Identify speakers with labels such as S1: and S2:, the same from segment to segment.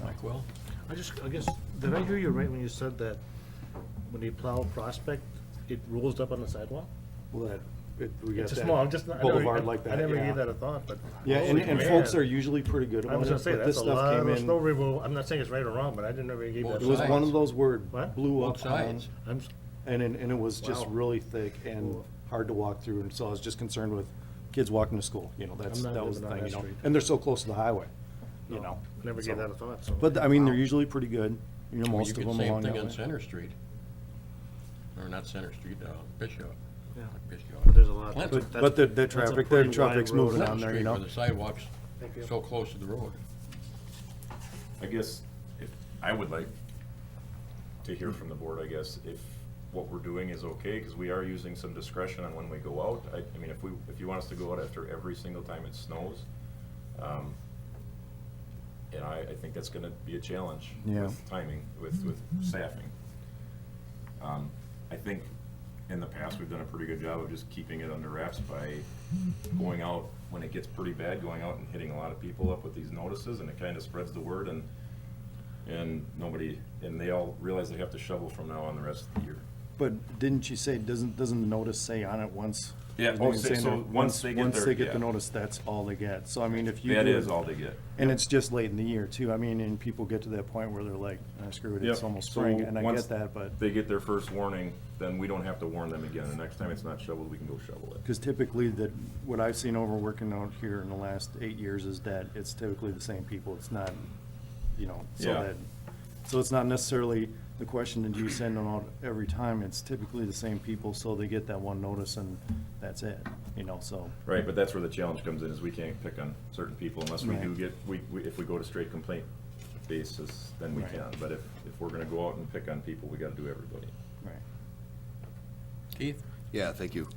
S1: Blackwell.
S2: I just, I guess, did I hear you right when you said that when you plow Prospect, it rolls up on the sidewalk?
S3: Well, that, it- we got
S2: It's just
S3: that
S2: small, I'm just, not- I never,
S3: Boulevard like
S2: I
S3: that,
S2: never
S3: yeah.
S2: gave that a thought, but.
S3: Yeah, and,
S2: Holy
S3: and
S2: man.
S3: folks are usually pretty good
S2: I
S3: about
S2: was
S3: it,
S2: gonna say,
S3: but this
S2: that's a
S3: stuff
S2: lot
S3: came
S2: of
S3: in.
S2: snow removal, I'm not saying it's right or wrong, but I didn't ever give that.
S3: It was
S2: thought.
S3: one of those where it
S2: What?
S3: blew
S1: Both
S3: up on,
S1: sides.
S2: I'm, s-
S3: and, it- and it was just
S1: Wow.
S3: really thick and hard to walk through, and so I was just concerned with kids walking to school, you know, that's,
S2: not
S3: that was the
S2: living on
S3: thing, you
S2: that
S3: know?
S2: street.
S3: And they're so close to the highway, you
S2: No,
S3: know?
S2: never
S3: so-
S2: gave that a thought, so.
S3: But, I mean, they're usually pretty good, you know,
S1: Well,
S3: most of them
S1: You
S3: along
S1: could same
S3: that
S1: thing on
S3: way.
S1: Center Street. Or not Center Street, uh, Bishop.
S2: Yeah.
S1: Not Bishop.
S2: But there's a lot.
S1: Clinton.
S3: But,
S2: That's-
S3: but the, the
S2: that's a
S3: traffic, the
S2: pretty wide
S3: traffic's
S2: road.
S3: moving
S1: Clinton
S3: on there, you
S1: Street
S3: know?
S1: Where the sidewalk's
S2: Thank you.
S1: so close to the road.
S4: I guess, if, I would like to hear from the board, I guess, if what we're doing is okay, because we are using some discretion on when we go out. I, I mean, if we, if you want us to go out after every single time it snows, um, and I, I think that's gonna be a challenge
S3: Yeah.
S4: with timing, with, with staffing. Um, I think in the past, we've done a pretty good job of just keeping it under wraps by going out, when it gets pretty bad, going out and hitting a lot of people up with these notices, and it kind of spreads the word, and, and nobody, and they all realize they have to shovel from now on the rest of the year.
S3: But didn't you say, doesn't, doesn't the notice say on it once?
S4: Yeah,
S3: Doesn't it
S4: oh, say-
S3: say
S4: so
S3: that
S4: once they get
S3: Once
S4: their-
S3: they get the
S4: yeah.
S3: notice, that's all they get, so I mean, if you do.
S4: That is
S3: it-
S4: all they get.
S3: And it's just late in the year too. I mean, and people get to that point where they're like, "Ah, screw it, it's
S4: Yep.
S3: almost
S4: So
S3: spring, and I
S4: once
S3: get that, but,
S4: They get their first warning, then we don't have to warn them again. The next time it's not shoveled, we can go shovel it.
S3: because typically that, what I've seen over working out here in the last eight years is that it's typically the same people. It's not, you know, so
S4: Yeah.
S3: that, so it's not necessarily the question that you send them out every time. It's typically the same people, so they get that one notice and that's it, you know, so.
S4: Right, but that's where the challenge comes in, is we can't pick on certain people unless we
S3: Right.
S4: do get, we, we- if we go to straight complaint basis, then we
S3: Right.
S4: can. But if, if we're gonna go out and pick on people, we gotta do everybody.
S3: Right.
S1: Keith?
S5: Yeah, thank you.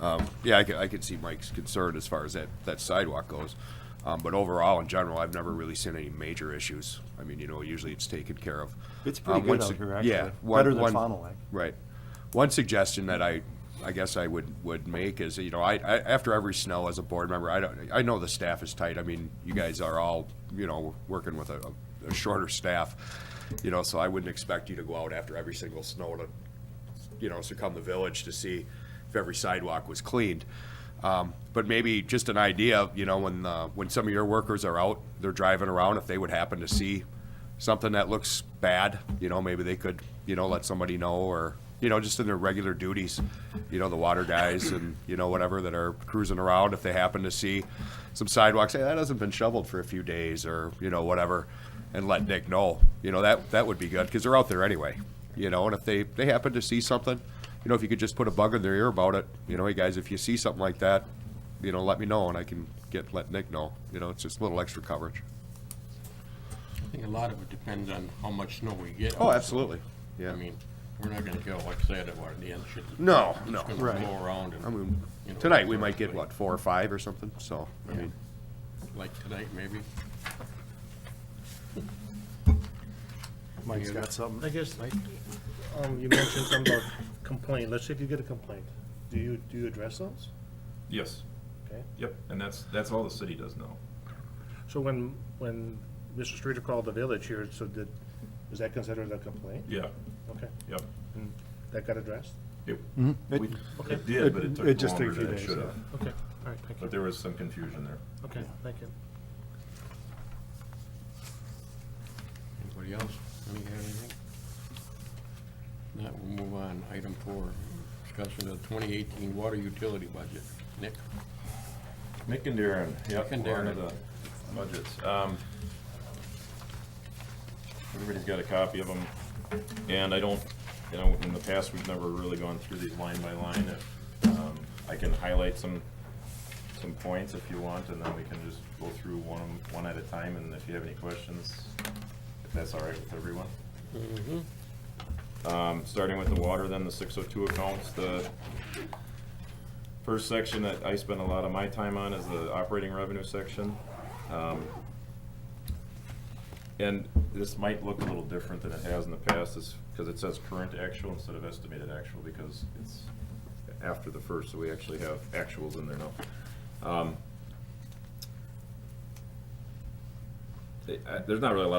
S5: Um, Yeah, I could, I could see Mike's concern as far as that, that sidewalk goes. Um, But overall, in general, I've never really seen any major issues. I mean, you know, usually it's taken care of.
S3: It's pretty
S5: Um,
S3: good
S5: one
S3: out
S5: su-
S3: here,
S5: Yeah.
S3: actually.
S5: one-
S3: Better than
S5: one-
S3: Fond du Lac.
S5: Right. One suggestion that I, I guess I would, would make is, you know, I, I, after every snow as a board member, I don't, I know the staff is tight. I mean, you guys are all, you know, working with a, a shorter staff, you know, so I wouldn't expect you to go out after every single snow to, you know, succumb the village to see if every sidewalk was cleaned. Um, but maybe just an idea, you know, when, uh, when some of your workers are out, they're driving around, if they would happen to see something that looks bad, you know, maybe they could, you know, let somebody know or, you know, just in their regular duties, you know, the water guys and, you know, whatever that are cruising around, if they happen to see some sidewalks, hey, that hasn't been shoveled for a few days or, you know, whatever, and let Nick know, you know, that, that would be good, cause they're out there anyway, you know, and if they, they happen to see something, you know, if you could just put a bug in their ear about it, you know, hey guys, if you see something like that, you know, let me know and I can get, let Nick know, you know, it's just a little extra coverage.
S1: I think a lot of it depends on how much snow we get.
S5: Oh, absolutely, yeah.
S1: I mean, we're not gonna go, like I said, at what, the end shit.
S5: No,
S1: it's
S5: no,
S1: gonna
S3: right.
S1: blow around and,
S5: I mean,
S1: you know,
S5: tonight we might get,
S1: like-
S5: what, four or five or something, so, I mean,
S1: Like tonight, maybe.
S3: Mike's
S1: Yeah.
S3: got something.
S2: I guess, um, you mentioned something about complaint, let's say if you get a complaint, do you, do you address those?
S4: Yes,
S2: Okay,
S4: yep, and that's, that's all the city does now.
S2: so when, when Mr. Streeter called the village here, so did, was that considered a complaint?
S4: Yeah,
S2: Okay,
S4: yep.
S2: and that got addressed?
S4: It,
S3: It-
S4: we-
S2: Okay.
S4: it did, but it
S3: It- it
S4: took
S3: just took a
S4: longer
S3: few
S4: than it
S3: days,
S4: should
S3: yeah.
S4: have.
S2: Okay, all right, thank
S4: But
S2: you,
S4: there was some confusion there.
S2: okay, thank you.
S1: Anybody else? Any, have anything? Now, we'll move on. Item four, discussion of the twenty eighteen water utility budget. Nick?
S4: Nick and Darren,
S1: Nick
S4: yep,
S1: and
S4: we're on to
S1: Darren.
S4: the budgets. Um, Everybody's got a copy of them, and I don't, you know, in the past, we've never really gone through these line by line. If, um, I can highlight some, some points if you want, and then we can just go through one, one at a time, and if you have any questions, if that's all right with everyone.
S1: Mm-hmm.
S4: Um, starting with the water, then the six oh two accounts, the first section that I spend a lot of my time on is the operating revenue section. Um, And this might look a little different than it has in the past, is, because it says current actual instead of estimated actual, because it's after the first, so we actually have actuals in there now. Um, I- I- There's not really a lot of